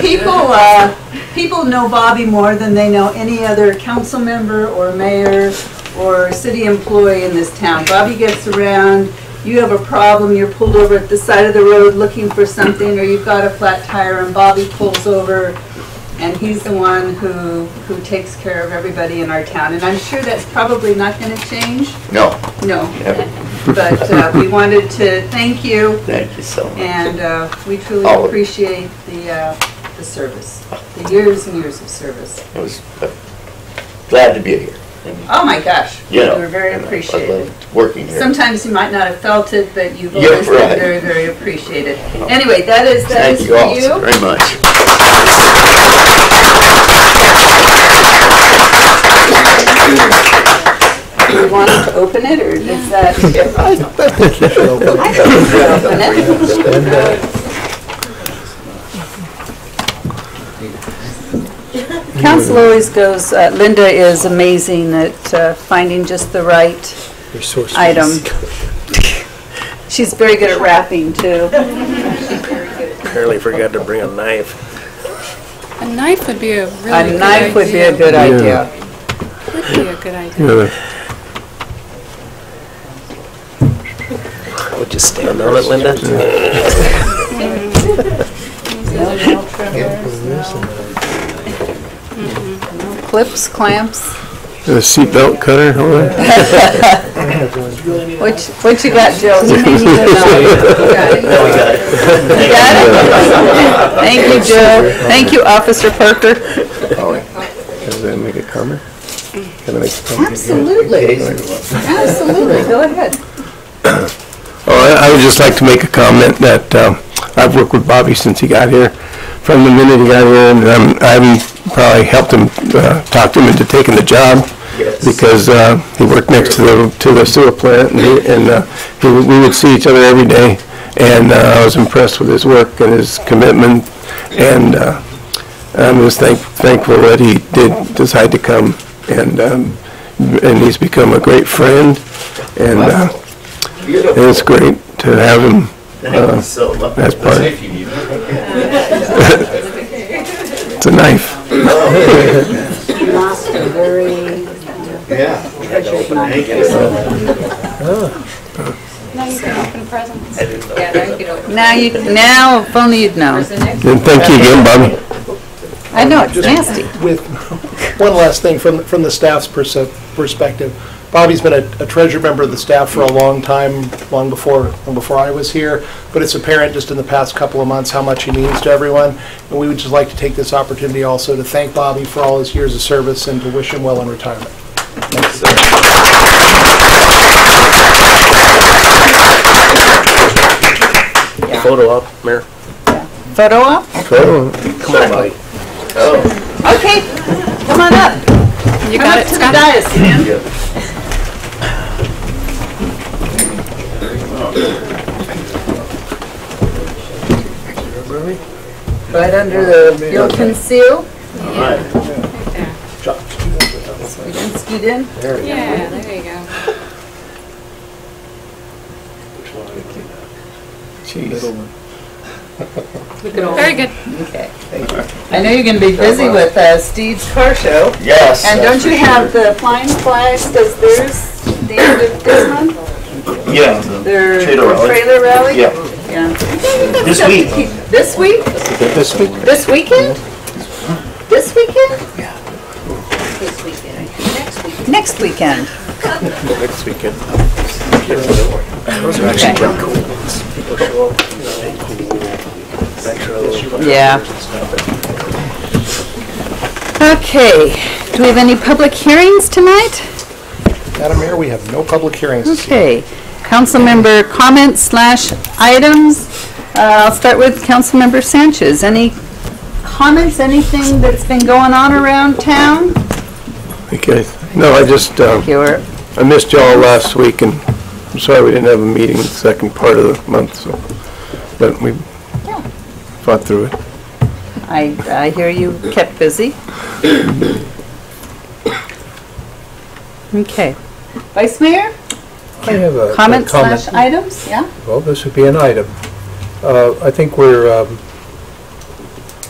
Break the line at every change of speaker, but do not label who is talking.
People, uh, people know Bobby more than they know any other council member or mayor or city employee in this town. Bobby gets around, you have a problem, you're pulled over at the side of the road looking for something, or you've got a flat tire and Bobby pulls over and he's the one who, who takes care of everybody in our town. And I'm sure that's probably not gonna change,
No,
no.
never.
But uh, we wanted to thank you
Thank you so much.
and uh, we truly
All of-
appreciate the, uh, the service, the years and years of service.
I was uh, glad to be here.
Oh, my gosh.
You know,
You were very
and I- I
appreciated.
loved Working here.
Sometimes you might not have felt it, but you've
Yeah,
always been
right.
very, very appreciated. Anyway, that is, that
Thank
is
you
for
all
you.
very much.
Do you want to open it, or is that? I think you should open it. Council always goes, uh, Linda is amazing at uh, finding just the right item. She's very good at wrapping, too.
Apparently forgot to bring a knife.
A knife would be a really good idea.
A knife would be a good idea.
Would be a good idea.
Yeah,
I would just stand on it, Linda.
Clips, clamps,
a seatbelt cutter, all right.
what you- what you got, Jill? You may need to know. Okay.
Now we got it.
You got it? Thank you, Jill. Thank you, Officer Parker.
Oh,
All right. Does that make a comment? Can I make a comment?
Absolutely, absolutely, go ahead.
Oh, I I would just like to make a comment that um, I've worked with Bobby since he got here. From the minute he got here, and um, I haven't probably helped him, uh, talked him into taking the job because uh, he worked next to the, to the sewer plant and he- and uh, he- we would see each other every day. And uh, I was impressed with his work and his commitment and uh, I'm just thank- thankful that he did decide to come and, um, and he's become a great friend and uh,
Beautiful.
it's great to have him
Thank you so much.
as uh, part. It's a knife.
You lost a very
Yeah.
treasured
Thank
knife.
you so much.
Now you can open presents.
Now you, now, if only you'd known.
And thank you again, Bobby.
I know, it's nasty.
with, one last thing, from, from the staff's perse- perspective, Bobby's been a a treasured member of the staff for a long time, long before, long before I was here, but it's apparent just in the past couple of months how much he means to everyone, and we would just like to take this opportunity also to thank Bobby for all his years of service and to wish him well in retirement.
Photo op, Mayor.
Photo op?
Somebody. Oh,
Okay, come on up.
You
Come
got
up
it,
to the
Scott?
dais, man. Right under the, you'll conceal.
all right.
You can scoot in.
Yeah, there you go. Very good.
Okay. I know you're gonna be busy with uh, Steve's car show.
Yes.
And
that's
don't you
for
have the flying flags, does theirs, the end of this month?
sure. Yeah. the-
Their
Trailer rally.
trailer rally?
Yeah.
Yeah.
This week.
This week?
This week,
This weekend? This weekend? Yeah. Next weekend.
Next weekend.
Next weekend. Okay. Yeah. Okay, do we have any public hearings tonight?
Madam Mayor, we have no public hearings. this evening.
Okay, council member comments slash items. Uh, I'll start with council member Sanchez. Any comments, anything that's been going on around town?
okay. No, I just, uh,
Your
I missed y'all last week, and I'm sorry we didn't have a meeting the second part of the month, so, but we fought through it.
I, I hear you kept busy. Okay. Vice Mayor,
I have a a
Uh,
comments
comment.
slash items, yeah?
Well, this would be an item. Uh, I think we're um,